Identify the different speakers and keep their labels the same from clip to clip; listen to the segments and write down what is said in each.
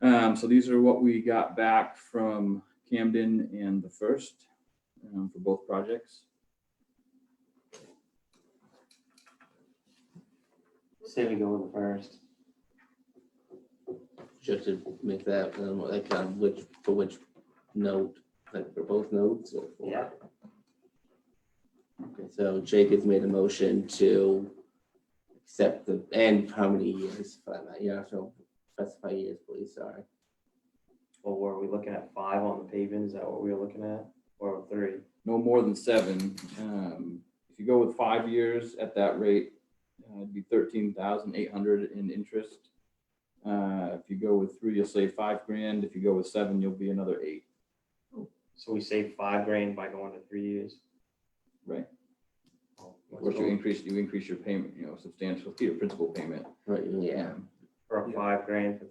Speaker 1: Um, so these are what we got back from Camden and the first, um, for both projects.
Speaker 2: Say we go with the first.
Speaker 3: Just to make that, um, like, um, which, for which note, like, for both notes? or for-
Speaker 2: Yeah.
Speaker 3: Okay, so Jake has made a motion to accept the, and how many years, for that matter, yeah, so specify years, please, sorry.
Speaker 2: Well, were we looking at five on the pavement? Is that what we were looking at? Or three?
Speaker 1: no more than seven. Um, If you go with five years at that rate, uh, it'd be thirteen thousand eight hundred in interest. Uh, If you go with three, you'll save five grand. If you go with seven, you'll be another eight.
Speaker 2: So we saved five grand by going to three years?
Speaker 1: Right.
Speaker 2: Oh,
Speaker 1: Of
Speaker 2: let's
Speaker 1: course, you
Speaker 2: go
Speaker 1: increase, you increase your payment, you know, substantially, your principal payment. Um,
Speaker 3: Right, yeah,
Speaker 2: For five grand for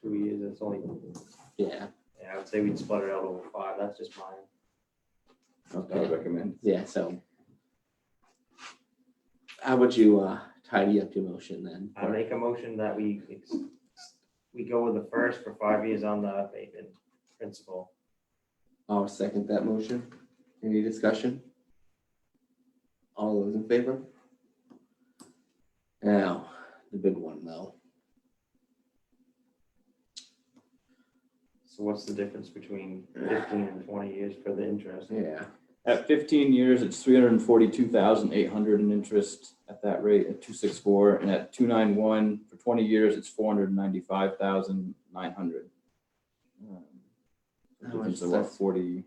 Speaker 2: two years, that's only,
Speaker 3: yeah,
Speaker 2: yeah, I would say we'd split it out over five. That's just mine.
Speaker 1: I would
Speaker 3: okay,
Speaker 1: recommend.
Speaker 3: yeah, so. How would you, uh, tidy up your motion then?
Speaker 2: I make a motion that we, ex- we go with the first for five years on the pavement principle.
Speaker 3: I'll second that motion. Any discussion? All those in favor? Now, the big one though.
Speaker 2: So what's the difference between fifteen and twenty years for the interest?
Speaker 3: Yeah.
Speaker 1: At fifteen years, it's three hundred and forty-two thousand eight hundred in interest at that rate at two six four. And at two nine one, for twenty years, it's four hundred and ninety-five thousand nine hundred.
Speaker 3: How much
Speaker 1: Difference
Speaker 3: is
Speaker 1: of about
Speaker 3: that?
Speaker 1: forty.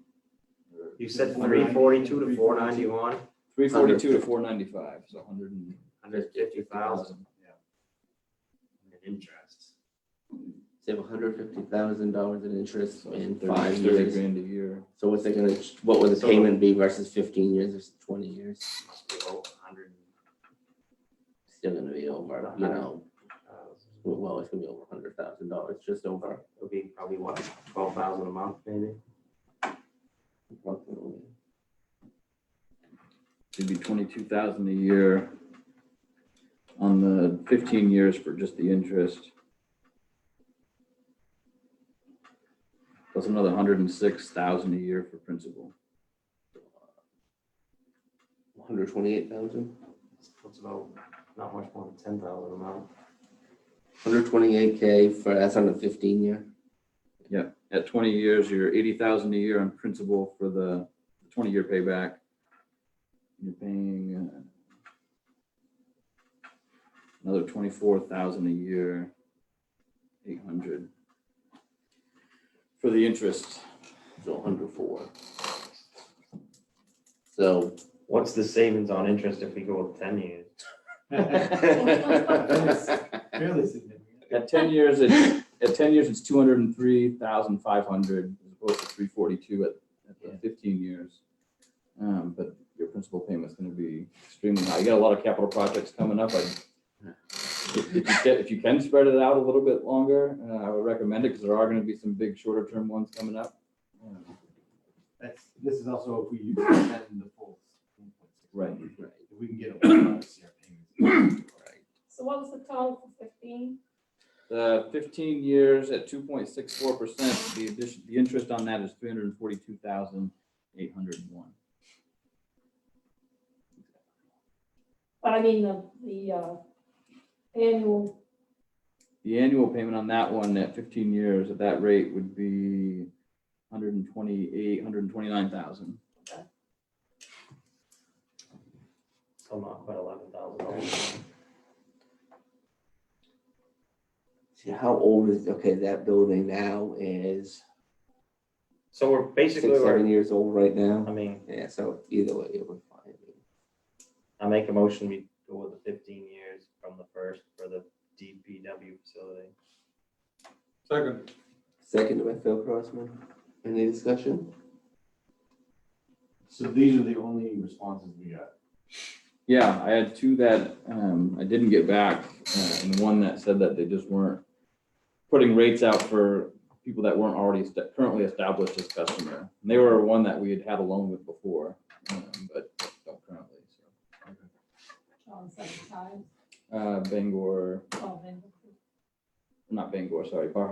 Speaker 2: You said three forty-two to four ninety-one,
Speaker 1: Three forty-two to four ninety-five, so hundred and
Speaker 2: hundred fifty thousand
Speaker 1: thousand.
Speaker 2: in interest.
Speaker 3: Save hundred fifty thousand dollars in interest
Speaker 1: So
Speaker 3: in
Speaker 1: thirty
Speaker 3: five
Speaker 1: 30
Speaker 3: years.
Speaker 1: Grand a year.
Speaker 3: So what's it gonna, what would the
Speaker 2: So-
Speaker 3: payment be versus fifteen years versus twenty years?
Speaker 2: Must be over a hundred
Speaker 3: Still gonna be over, you
Speaker 2: Uh-huh.
Speaker 3: know,
Speaker 2: thousand.
Speaker 3: well, it's gonna be over hundred thousand dollars, just over.
Speaker 2: It'll be probably what, twelve thousand a month maybe?
Speaker 3: approximately.
Speaker 1: It'd be twenty-two thousand a year on the fifteen years for just the interest. Plus another hundred and six thousand a year for principal.
Speaker 3: Hundred twenty-eight thousand,
Speaker 2: That's about, not much more than ten thousand a month.
Speaker 3: hundred twenty-eight K for, that's on a fifteen year.
Speaker 1: At twenty years, you're eighty thousand a year on principal for the twenty-year payback. You're paying uh, another twenty-four thousand a year, eight hundred for the interest.
Speaker 3: So hundred four. So.
Speaker 2: What's the savings on interest if we go with ten years?
Speaker 4: Fairly significant.
Speaker 1: At ten years, it's, at ten years, it's two hundred and three thousand five hundred, as opposed to three forty-two at, at the fifteen years. Um, but your principal payment's gonna be extremely high. You got a lot of capital projects coming up. I- If if you can, if you can spread it out a little bit longer, uh, I would recommend it, because there are gonna be some big shorter-term ones coming up. Um,
Speaker 4: That's, this is also if we use that in the full. 1.6.
Speaker 1: Right.
Speaker 4: If we can get a one of CR payments.
Speaker 5: So what was the total for fifteen?
Speaker 1: The fifteen years at two point six four percent, the addition, the interest on that is three hundred and forty-two thousand eight hundred and one.
Speaker 5: But I mean, the, the, uh, annual,
Speaker 1: The annual payment on that one at fifteen years at that rate would be hundred and twenty-eight, hundred and twenty-nine thousand.
Speaker 2: Still not quite eleven thousand dollars.
Speaker 3: See, how old is, okay, that building now is
Speaker 2: So we're
Speaker 3: six,
Speaker 2: basically, we're-
Speaker 3: seven years old right now.
Speaker 2: I mean,
Speaker 3: Yeah, so either way, it would fine.
Speaker 2: I make a motion, we go with the fifteen years from the first for the DPW facility.
Speaker 4: Second.
Speaker 3: Second by Phil Crossman. Any discussion?
Speaker 4: So these are the only responses we got.
Speaker 1: Yeah, I had two that um, I didn't get back, uh, and one that said that they just weren't putting rates out for people that weren't already esta- currently established as customer. And they were one that we had had a loan with before, um, but don't currently. so.
Speaker 5: John said the time,
Speaker 1: Uh, Bangor,
Speaker 5: twelve and.
Speaker 1: not Bangor, sorry, Bar